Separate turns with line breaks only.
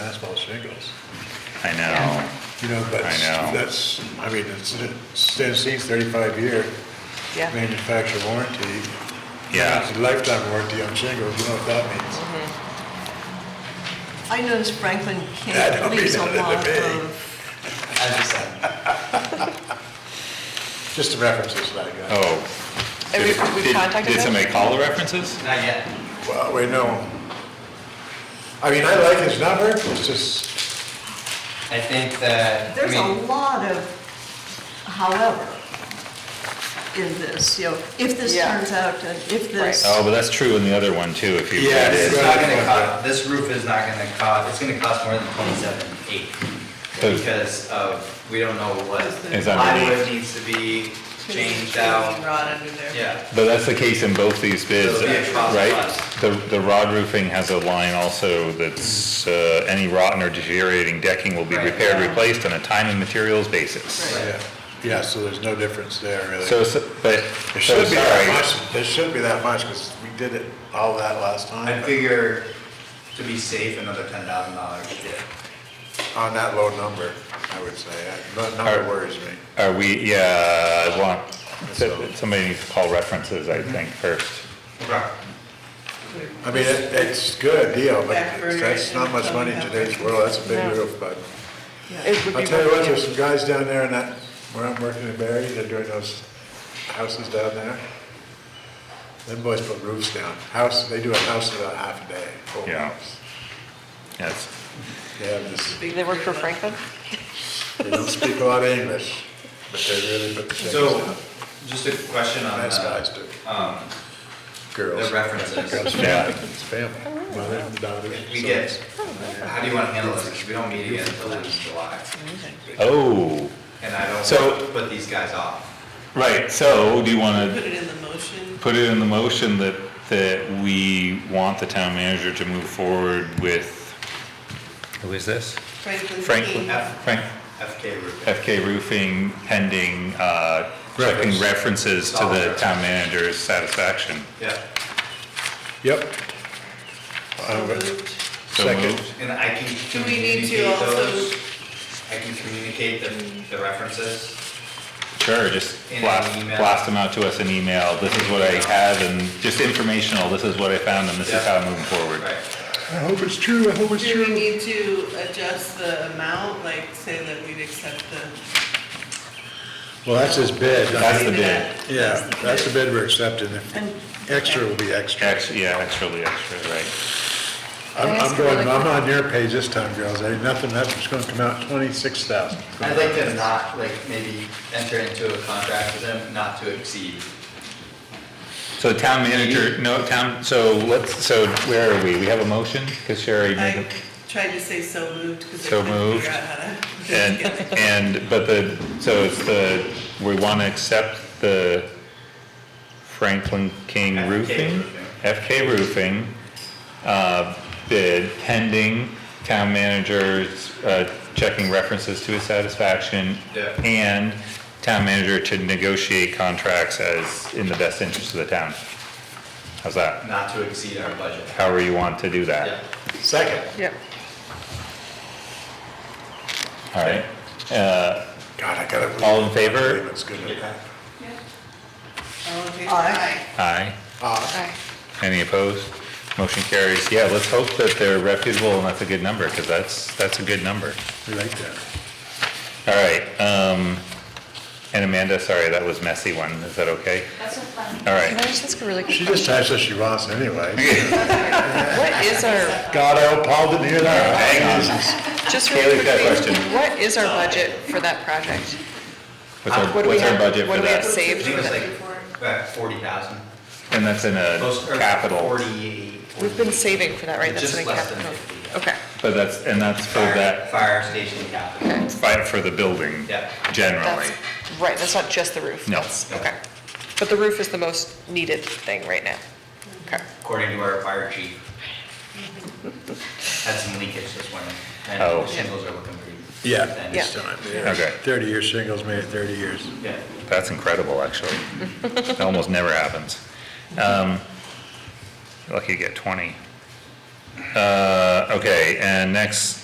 shingles,
I know.
you know, but
I know.
that's, I mean, it's, it's Tennessee's thirty-five year
Yeah,
manufacturer warranty.
Yeah.
It's a lifetime warranty on shingles, you know what that means?
I noticed Franklin
That
County
don't
leaves a
mean nothing to
lot
me.
of,
Just the references that I got.
Oh.
And we-
Did-
we
did-
contacted
Did
them?
somebody call the references?
Not yet.
Oh.
Well, we know. I mean, I like his number, it's just,
I think that, I
there's a
mean,
lot of however in this, you know, if this
Yeah.
turns out, and if this,
Right.
Oh, but that's true in the other one too, if you.
Yeah,
read it.
it's not gonna cost, this roof is not gonna cost, it's gonna cost more than twenty-seven eight.
Cause-
Because of, we don't know what
It's
plywood
underneath.
needs to be changed out.
Rod under there.
Yeah,
But that's the case in both these bids,
So it'll be a cost
right?
plus.
The, the rod roofing has a line also that's, uh, any rotten or deteriorating decking will be
Right.
repaired, replaced on a time and materials basis.
Right.
yeah, yeah, so there's no difference there, really.
So, so- but,
There
so
should be that
sorry,
much, there should be that much, because we did it all that last
I
time, but
figure to be safe, another ten thousand dollars.
on that low number, I would say, I- that number
Alright.
worries me.
are we, yeah, I want,
So-
somebody needs to call references, I
Mm-hmm.
think, first.
Okay.
I mean, it- it's a good deal, but
Back burner
that's not
and
much money in
something
today's world, that's a big
No.
roof, but.
It would
I'll
be
tell you what, there's
really,
some guys down there in that, where I'm working in Barry, they're doing those houses down there. Them boys put roofs down, house, they do a house in about half a day. whole
Yeah.
house.
Yes,
They have this,
they work for Franklin?
they don't speak a lot of English, but they really put the shingles
So,
down.
just a question on
Nice guys
the,
do,
um,
girls.
the references.
yeah.
It's family,
Oh,
mother and daughter.
We
so
get,
it's-
how do you wanna handle this? 'Cause we don't meet again until after July.
Oh,
And I don't
So-
want to put these guys off.
right, so do you wanna
Put it in the motion.
put it in the motion that, that we want the town manager to move forward with, who is this?
Franklin.
Franklin,
F.
Frank,
FK Rubin.
FK Roofing pending, uh, checking references to the town manager's satisfaction.
Yeah.
Yep.
So
Um,
moved.
So
Second.
moved.
And I can
Do we need to
communicate
also-
those. I can communicate the, the references.
Sure, just
In an
blast,
email.
blast them out to us in email, this is what I have, and just informational, this is what I found, and this is how I'm moving forward.
Right.
I hope it's true, I hope it's
Do we
true.
need to adjust the amount, like say that we'd accept the?
Well, that's his bid.
That's the bid,
Yeah, that's the bid we're accepting. If
and
Extra will be extra.
extra, yeah, extra, extra, right,
I'm,
Can I ask
I'm
a
going,
really
I'm
quick-
on your page this time, girls, there ain't nothing left, it's gonna come out twenty-six thousand.
I'd like to not, like, maybe enter into a contract with them not to exceed.
so town manager, no, town, so let's, so where are we, we have a motion, cause Sherry made
I
a.
tried to say so moved because I
So
couldn't
moved.
figure out how to.
And, and, but the, so it's the, we want to accept the Franklin King
FK
Roofing?
Roofing.
FK Roofing, uh, bid pending town manager's, uh, checking references to his satisfaction.
Yeah.
And town manager to negotiate contracts as in the best interest of the town. How's that?
not to exceed our budget.
However you want to do
Yeah.
that.
Second.
Yep.
All right, uh,
God, I gotta.
All in favor?
It's good at that.
All in favor?
Aye.
aye.
Uh,
Aye.
Any opposed? Motion carries. Yeah, let's hope that they're reputable and that's a good number, because that's, that's a good number.
we like that.
All right, um, and Amanda, sorry, that was messy one. Is that okay?
That's a fun.
All
Can I
right.
just ask a really
She
quick
just
question?
types what she wants anyway.
What is our,
God, I hope Paul didn't hear that. Hang on.
just
Kaylee's
really
got a
quickly,
question.
what is our budget for that project?
What's our,
What do we
what's our
have-
budget
what
for
do we have
that?
I
saved
think
for
it's
that?
like, about forty thousand.
And that's in a capital,
Forty-eight.
We've been saving for that, right? That's
Just
in a
less than
capital.
50.
Okay,
but that's, and that's for
Fire-
that,
Fire station capital.
fi- for the building.
Yeah.
Generally.
that's, right, that's not just the roof.
No.
that's- Okay. But the roof is the most needed thing right now. Okay.
according to our fire chief. Had some leakage this morning, and
Oh.
the shingles are looking pretty.
Yeah,
thin.
this
Yeah.
time.
Okay.
Thirty-year shingles made it thirty years.
Yeah,
That's incredible, actually. It almost never happens. Um, Lucky to get 20. Uh, Okay, and next